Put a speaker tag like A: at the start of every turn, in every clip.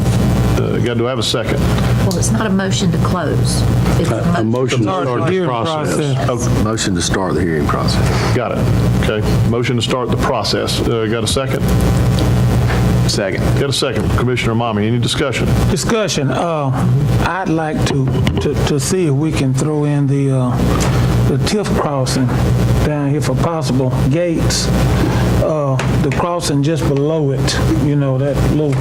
A: Uh, God, do I have a second?
B: Well, it's not a motion to close. It's
C: A motion to
A: Start the
C: start the
A: hearing
C: process.
A: process.
D: Motion to start the hearing process.
A: Got it. Okay. Motion to start the process. Uh, Got a second?
D: Second.
A: Got a second. Commissioner Mommy, any discussion?
C: Discussion, uh, I'd like to, to, to see if we can throw in the, uh, the TIF crossing down here for possible gates. Uh, the crossing just below it, you know, that little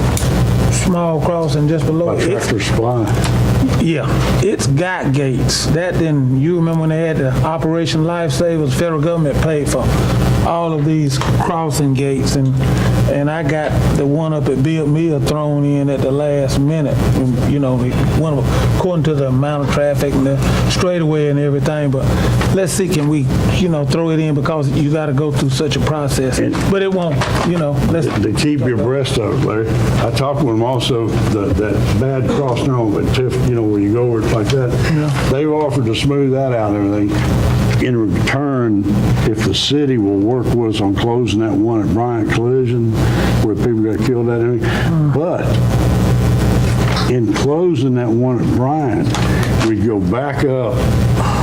C: small crossing just below it. It's-
E: Tractor Supply.
C: Yeah, it's got gates. That then, you remember when they had the Operation Lifesavers, federal government paid for all of these crossing gates and, and I got the one up at Bill Mill thrown in at the last minute. You know, the one, of- according to the amount of traffic and the straightaway and everything, but let's see, can we, you know, throw it in because you gotta go through such a process. But it won't, you know, let's,
E: To keep your breast up, Larry. I talked with them also, the- that bad crossing over at Tiff, you know, where you go over it like that. They've offered to smooth that out and everything. In return, if the city will work with us on closing that one at Bryant Collision, where people got killed at, and everything. but in closing that one at Bryant, we'd go back up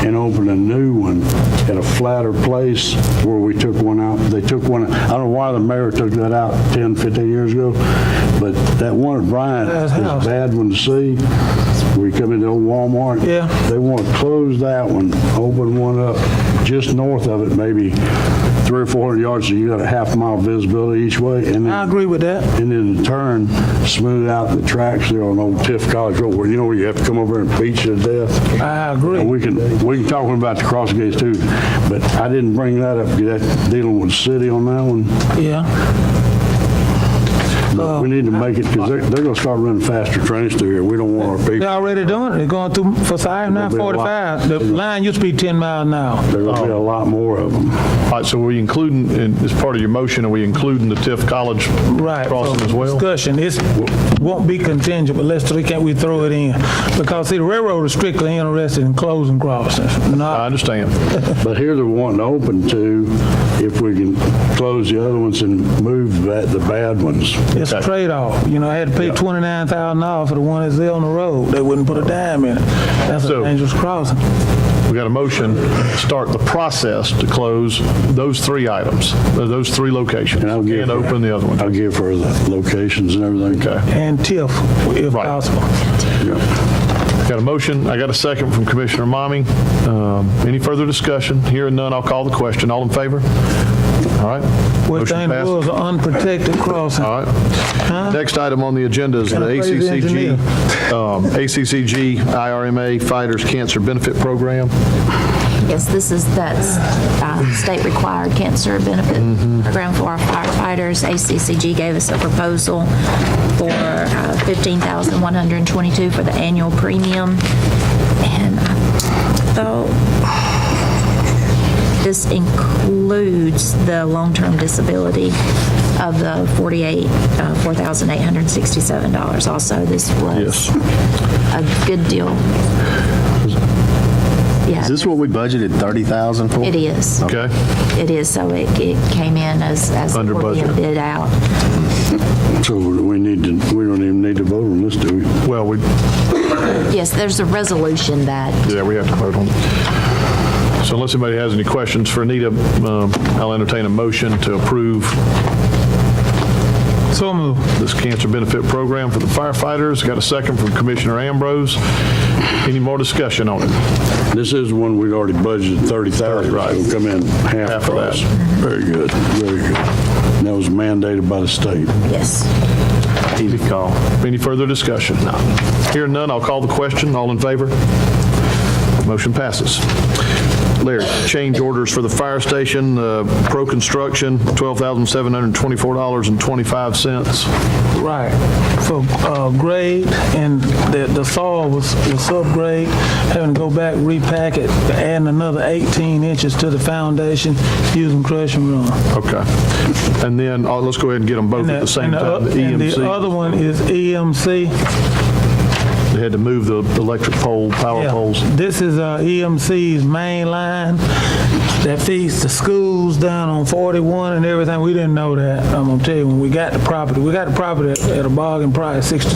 E: and open a new one at a flatter place where we took one out. They took one, I don't know why the mayor took that out 10, 15 years ago, but that one at Bryant
C: That
E: is
C: house.
E: a bad one to see. We come into old Walmart.
C: Yeah.
E: They want to close that one, open one up just north of it, maybe three or 400 yards, so you got a half mile visibility each way. and then-
C: I agree with that.
E: and then in turn, smooth out the tracks there on Old Tiff College Road, where, you know, where you have to come over and beat you to death.
C: I agree.
E: And we can, we can talk about the cross gates too, but I didn't bring that up, because that's dealing with the city on that one.
C: Yeah,
E: But we need to make it, because they're, they're gonna start running faster trains through here, we don't want our
C: they're
E: people,
C: already doing it. They're going through, for I
E: There'll
C: nine
E: be a lot.
C: forty-five, the line used to be ten miles an hour.
E: there's gonna be a lot more of them.
A: All right, so we including, and as part of your motion, are we including the TIF college
C: Right.
A: crossing
C: so
A: as well?
C: Discussion, it's, won't be contingent, but let's, we can't we throw it in? Because see, the railroad is strictly interested in closing crossings,
A: I
C: not,
A: understand.
E: But here they're wanting to open to, if we can close the other ones and move that, the bad ones.
C: it's a
A: Okay.
C: trade-off. You know, I had to pay twenty-nine thousand dollars for the one that's there on the road. They wouldn't put a dime in it. That's a
A: So-
C: dangerous crossing.
A: We got a motion, to start the process to close those three items, uh, those three locations,
E: And I'll give
A: and
E: her-
A: open the other one.
E: I'll give her the locations and everything.
A: Okay.
C: And TIF, if
A: Right.
C: possible.
E: Yeah.
A: Got a motion, I got a second from Commissioner Mommy. Um, Any further discussion? Hearing none, I'll call the question. All in favor? All right.
C: Which
A: Motion Uh,
C: thing
A: passed.
C: was an unprotected crossing.
A: All right. Next item on the agenda is the
C: Can I play the
A: ACCG, um, ACCG IRMA Fighters Cancer Benefit Program.
B: Yes, this is, that's uh, state-required cancer benefit
D: Mm-hmm.
B: program for our firefighters. ACCG gave us a proposal for uh, 15122 for the annual premium. And I thought this includes the long-term disability of the 48, uh, $4,867 also. This was a good deal. Yeah.
D: Is this what we budgeted, 30,000 for?
B: It is.
A: Okay?
B: It is, so it, it came in as, as.
A: Under
B: we're being
A: budget.
B: Bid out.
E: So do we need to, we don't even need to vote on this, do we?
A: Well, we,
B: Yes, there's a resolution that,
A: yeah, we have to vote on it. So unless anybody has any questions for Anita, um, I'll entertain a motion to approve
C: So moved.
A: this cancer benefit program for the firefighters. Got a second from Commissioner Ambrose. Any more discussion on it?
E: This is one we'd already budgeted 30,000.
A: Right.
E: It'll come in half
A: Half of that.
E: price. Very good, very good. And that was mandated by the state.
B: yes.
A: Easy call. Any further discussion? No. Hearing none, I'll call the question. All in favor? Motion passes. Larry, change orders for the fire station, uh, pro construction, $12,724.25.
C: Right, for uh, grade, and the the soil was was subgrade, having to go back, repack it, adding another 18 inches to the foundation using crushing run.
A: Okay. And then, uh, let's go ahead and get them both at the same E
C: And the-
A: time. The
C: And the
A: EMC,
C: other one is E EMC.
A: they had to move the electric pole, power
C: Yeah.
A: poles.
C: This is uh, EMC's main line, that feeds the schools down on 41 and everything. We didn't know that. I'm gonna tell you, when we got the property, we got the property at- at a bargain price, 62